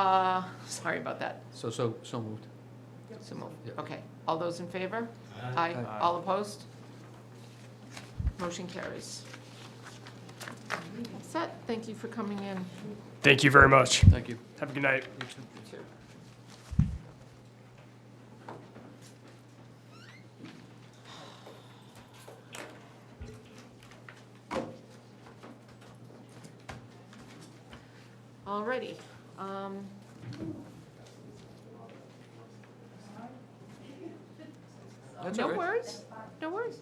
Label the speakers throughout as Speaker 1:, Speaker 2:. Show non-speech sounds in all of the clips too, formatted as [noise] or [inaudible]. Speaker 1: Uh, Sorry about that.
Speaker 2: So, so, so moved.
Speaker 1: So moved.
Speaker 2: Yep.
Speaker 1: Okay. All those in favor?
Speaker 3: Aye.
Speaker 2: Aye.
Speaker 1: All opposed? Motion carries. All Set. Thank you for coming in.
Speaker 3: Thank you very much.
Speaker 2: Thank you.
Speaker 3: Have a good night.
Speaker 1: Alrighty. um,
Speaker 2: That's
Speaker 1: No
Speaker 2: all right.
Speaker 1: worries, no worries.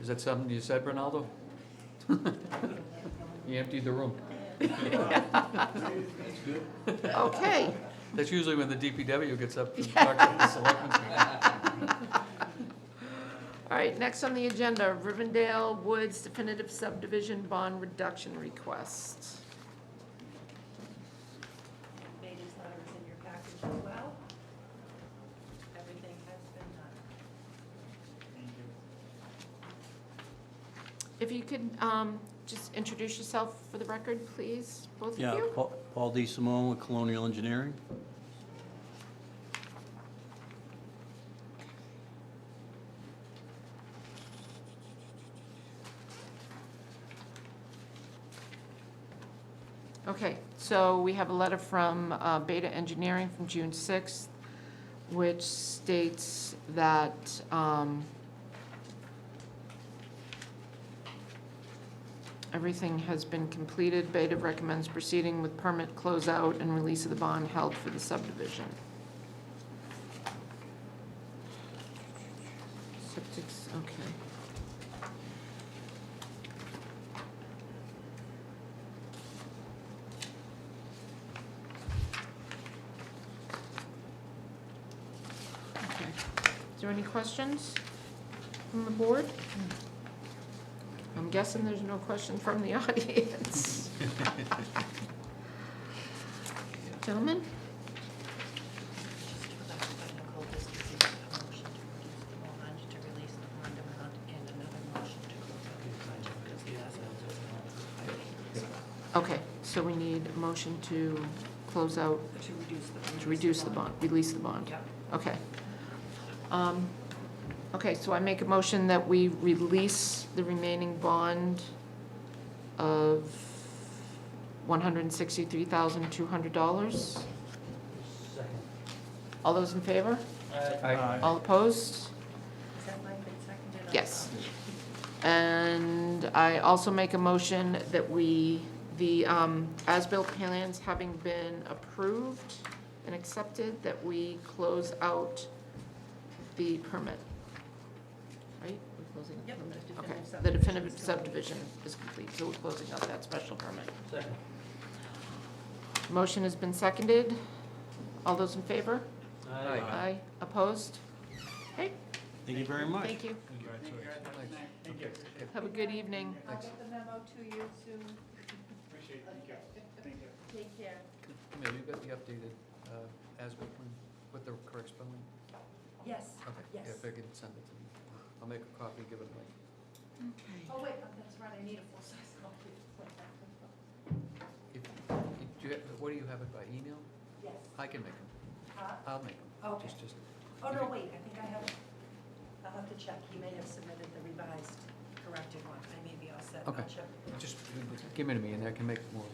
Speaker 2: Is that something you said, Ronaldo? [laughs] You emptied the room.
Speaker 1: Okay,
Speaker 2: That's usually when the DPW gets up and talks to the
Speaker 4: [laughs]
Speaker 2: selectmen.
Speaker 1: all right, next on the agenda, Rivendell Woods definitive subdivision bond reduction request.
Speaker 4: Bailey's letter is in your package as well. Everything has been done.
Speaker 1: If you could um, just introduce yourself for the record, please, both of
Speaker 5: Yeah,
Speaker 1: you.
Speaker 5: Paul- Paul D. Simone with Colonial Engineering.
Speaker 1: Okay, so we have a letter from uh, Beta Engineering from June 6th, which states that um, everything has been completed. Beta recommends proceeding with permit closeout and release of the bond held for the subdivision. Septic's, okay. Okay. Is there any questions from the board? I'm guessing there's no question from the [laughs] audience. Gentlemen,
Speaker 4: Just to go back to technical, this is a motion to reduce the bond, to release the bond amount, and another motion to close out the project, because the assets is not.
Speaker 1: okay, so we need a motion to close out,
Speaker 4: To reduce the.
Speaker 1: to reduce the bond, release the bond.
Speaker 4: Yep.
Speaker 1: Okay. Um, Okay, so I make a motion that we release the remaining bond of $163,200. All those in favor? All opposed?
Speaker 4: Has that line been seconded?
Speaker 1: Yes. And I also make a motion that we, the um, as-built plans having been approved and accepted, that we close out the permit. Right? We're closing the
Speaker 4: Yep,
Speaker 1: permit?
Speaker 4: the
Speaker 1: Okay,
Speaker 4: definitive
Speaker 1: the
Speaker 4: subdivision
Speaker 1: definitive
Speaker 4: is
Speaker 1: subdivision
Speaker 4: complete.
Speaker 1: is complete, so we're closing out that special permit. Motion has been seconded. All those in favor?
Speaker 2: Aye.
Speaker 1: Aye. Opposed? Okay,
Speaker 5: Thank you very much.
Speaker 1: thank you. Have a good evening.
Speaker 4: I'll get the memo to you soon. Appreciate it, Take care.
Speaker 2: Camille, you got the updated uh, as-built plan with the correct spelling?
Speaker 4: Yes.
Speaker 2: Okay, yeah,
Speaker 4: Yes.
Speaker 2: if I can send it to me. I'll make a copy, give it to Mike.
Speaker 4: Oh, wait, oh, that's right, I need a full-size copy.
Speaker 2: If, if- do you, have- what do you have it by email?
Speaker 4: Yes,
Speaker 2: I can make them.
Speaker 4: huh?
Speaker 2: I'll make them.
Speaker 4: Okay.
Speaker 2: Just, just,
Speaker 4: Oh,
Speaker 2: You
Speaker 4: no,
Speaker 2: can-
Speaker 4: wait, I think I have, I'll have to check. You may have submitted the revised, corrected one. I may be all set. I'll
Speaker 2: Okay.
Speaker 4: check.
Speaker 2: just give it to me and I can make more.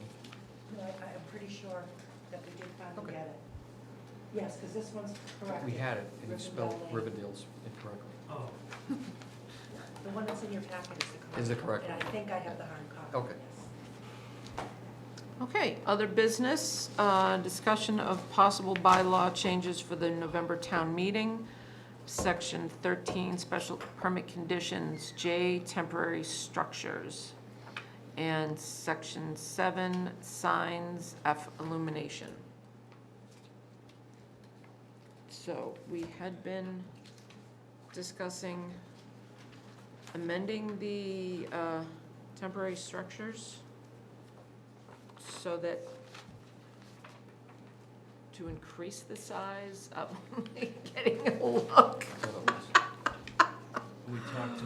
Speaker 4: No, I, I'm pretty sure that we did finally
Speaker 2: Okay.
Speaker 4: get it. Yes, because this one's corrected.
Speaker 2: We had it and it's spelled
Speaker 4: Rivendell
Speaker 2: Rivendell's incorrectly.
Speaker 4: Lane. The one that's in your packet is the correct.
Speaker 2: Is the
Speaker 4: one,
Speaker 2: correct
Speaker 4: And I
Speaker 2: one.
Speaker 4: think I have the hard copy.
Speaker 2: Okay.
Speaker 4: yes.
Speaker 1: Okay, other business, uh, discussion of possible bylaw changes for the November town meeting. Section 13, special permit conditions, J, temporary structures. And section 7, signs, F, illumination. So we had been discussing amending the uh, temporary structures so that, to increase the [laughs] size of, getting a look.
Speaker 2: Otherwise, We talked